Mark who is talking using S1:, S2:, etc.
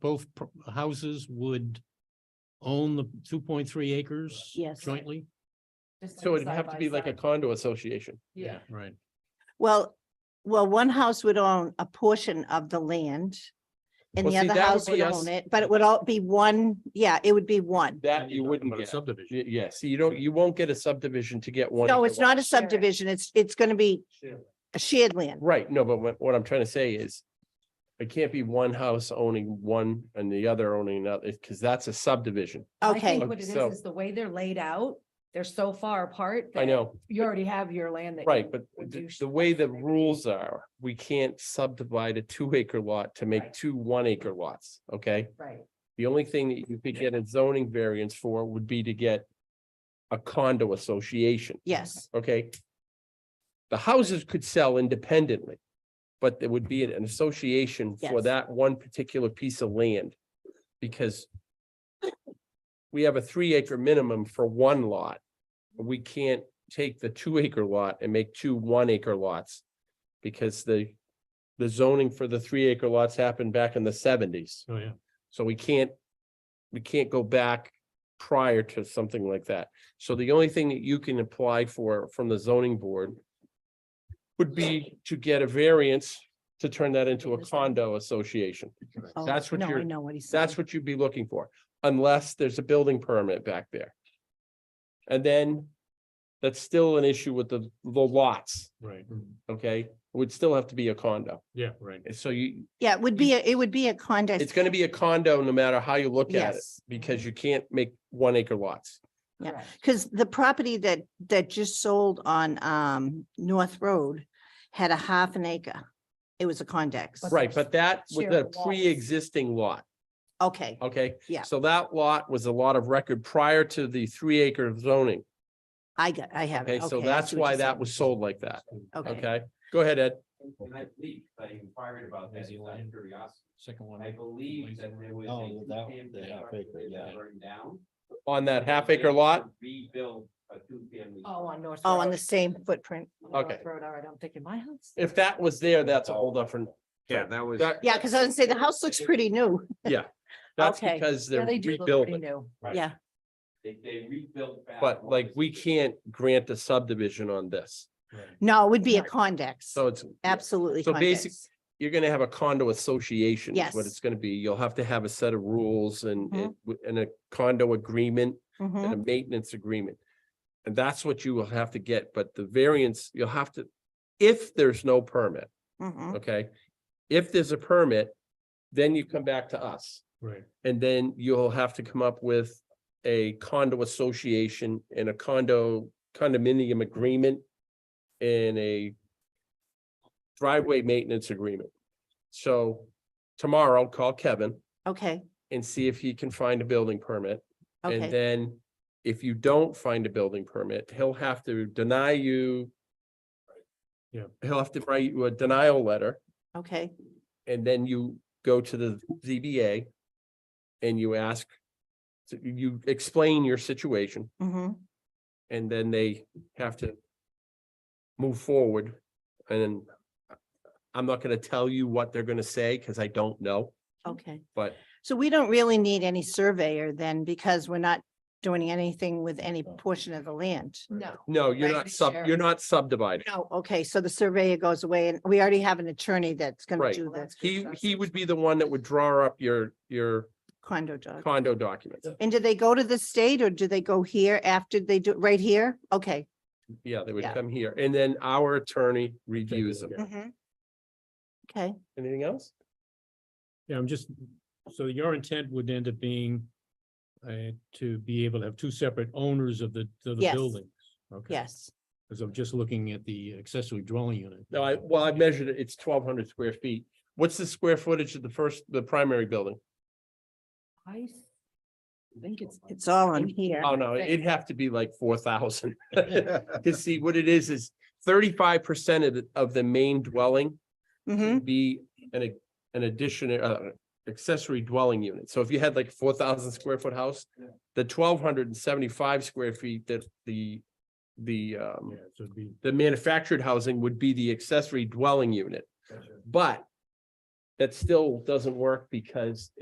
S1: both pro- houses would own the two point three acres
S2: Yes.
S1: jointly?
S3: Just
S4: So
S3: be
S4: it'd
S3: side
S4: have to
S3: by
S4: be like a
S3: side.
S4: condo association.
S3: Yeah,
S1: Right.
S2: Well, well, one house would own a portion of the land. And
S4: Well,
S2: the
S4: see,
S2: other
S4: that would
S2: house
S4: be
S2: would
S4: us-
S2: own it, but it would all be one, yeah, it would be one.
S4: That you wouldn't
S1: But a
S4: get.
S1: subdivision.
S4: Y- Yeah, so you don't, you won't get a subdivision to get one.
S2: No,
S4: acre
S2: it's not a
S3: share it.
S2: subdivision, it's, it's gonna be
S4: lot.
S2: a shared land.
S4: Right, no, but what, what I'm trying to say is. It can't be one house owning one and the other owning another, because that's a subdivision.
S3: I think
S2: Okay,
S3: What it is,
S4: so-
S3: is the way they're laid out, they're so far apart.
S4: I
S3: that
S4: know,
S3: You already have your land that.
S4: right,
S3: you
S4: but
S3: would
S4: the,
S3: do sh-
S4: the way the rules are, we can't subdivide a two acre lot to make
S3: Right.
S4: two one acre lots, okay?
S3: Right,
S4: The only thing that you could get a zoning variance for would be to get. A condo association.
S2: yes,
S4: okay? The houses could sell independently, but there would be an association for
S2: Yes.
S4: that one particular piece of land. Because we have a three acre minimum for one lot. We can't take the two acre lot and make two one acre lots. Because the, the zoning for the three acre lots happened back in the seventies.
S1: Oh, yeah.
S4: So we can't, we can't go back prior to something like that. So the only thing that you can apply for from the zoning board would be to get a variance to turn that into a condo association.
S2: Oh,
S4: That's what
S2: no, I
S4: you're-
S2: know what he's saying.
S4: That's what you'd be looking for, unless there's a building permit back there. And then that's still an issue with the, the lots,
S1: Right,
S4: okay? It Would still have to be a condo.
S1: yeah, right.
S4: So you,
S2: Yeah, it would be, a- it would be a condo.
S4: it's gonna be a condo no matter how you look at it,
S2: Yes,
S4: because you can't make one acre lots.
S2: Yeah.
S3: correct.
S2: because the property that, that just sold on, um, North Road had a half an acre. It was a condex.
S3: But-
S4: Right, but that was
S3: Share
S4: a
S3: the lots.
S4: pre-existing lot,
S2: Okay,
S4: okay?
S2: Yeah.
S4: So that lot was a lot of record prior to the three acre zoning,
S2: I got, I have. it.
S4: okay? So
S2: I
S4: that's
S2: see what
S4: why
S2: you're
S4: that
S2: saying.
S4: was sold like that,
S2: Okay.
S4: okay? Go ahead, Ed.
S5: And I believe, I inquired about that,
S1: New
S5: out of
S1: Zealand.
S5: curiosity,
S1: Second one.
S5: I believe that there was. a
S1: Oh, that-
S5: two-family
S1: the half
S5: structure
S1: acre,
S5: that
S1: yeah.
S5: Burned down.
S4: On that half
S5: They
S4: acre lot,
S5: Rebuild a two-family.
S3: Oh, on North.
S2: Oh,
S3: Road.
S2: on the same footprint.
S3: North
S4: okay.
S3: Road, all right, I'm thinking my house.
S4: if that was there, that's a whole different, Yeah,
S5: that was.
S4: that,
S2: Yeah, because I would say the house looks pretty new.
S4: that's
S2: Okay.
S4: because
S3: Yeah,
S4: they're
S3: they do look pretty
S4: rebuilding.
S3: new.
S2: Yeah,
S5: They, they rebuilt. back
S4: But
S5: what
S4: like,
S5: was-
S4: we can't grant a subdivision on this,
S2: no, it would be a
S3: Right.
S2: condex.
S4: so it's,
S2: Absolutely.
S4: So basic-
S2: convex.
S4: you're gonna have a condo association is what
S2: Yes.
S4: it's gonna be. You'll have to have a set of rules and,
S2: Mhm.
S4: and and a condo agreement.
S2: Mhm.
S4: and a maintenance agreement. And that's what you will have to get, but the variance, you'll have to, if there's no permit,
S2: Mhm.
S4: okay? If there's a permit, then you come back to us,
S1: Right.
S4: and then you'll have to come up with a condo association and a condo condominium agreement and a driveway maintenance agreement. So tomorrow, call Kevin
S2: Okay,
S4: and see if he can find a building permit. And
S2: okay,
S4: then if you don't find a building permit, he'll have to deny you.
S1: Yeah.
S4: He'll have to write you a denial letter
S2: okay.
S4: and then you go to the ZBA. And you ask, so you explain your situation
S2: hmm
S4: and then they have to. Move forward and I'm not gonna tell you what they're gonna say because I don't know,
S2: okay.
S4: but
S2: So we don't really need any surveyor then because we're not doing anything with any portion of the land.
S3: No,
S4: no, you're
S3: Right,
S4: not
S3: we
S4: sub,
S3: share.
S4: you're not subdividing.
S2: No, okay, so the surveyor goes away and we already have an attorney that's gonna
S4: Right.
S2: do
S3: well,
S2: the
S3: that's good
S4: He,
S3: stuff.
S4: he would be the one that would draw up your, your
S2: condo job.
S4: condo documents.
S2: And do they go to the state or do they go here after they do, right here? Okay.
S4: Yeah, they would
S2: Yeah.
S4: come here and then our attorney reviews them.
S1: Yeah.
S2: Mhm. Okay,
S4: Anything else?
S1: Yeah, I'm just, so your intent would end up being uh, to be able to have two separate owners of the, of the
S2: Yes.
S1: buildings. Okay.
S2: yes,
S1: Because I'm just looking at the accessory dwelling unit.
S4: No, I, well, I measured it. It's twelve hundred square feet. What's the square footage of the first, the primary building?
S3: I s- think it's,
S2: it's all on here.
S4: Oh, no, it'd have to be like four thousand. To see what it is, is thirty-five percent of, the- of the main dwelling
S2: hmm
S4: would be an, an addition, uh, accessory dwelling unit. So if you had like four thousand square foot house, the twelve hundred and seventy-five square feet that the, the, um,
S1: Yeah, so it'd be,
S4: the manufactured housing would be the accessory dwelling unit. But that still doesn't work because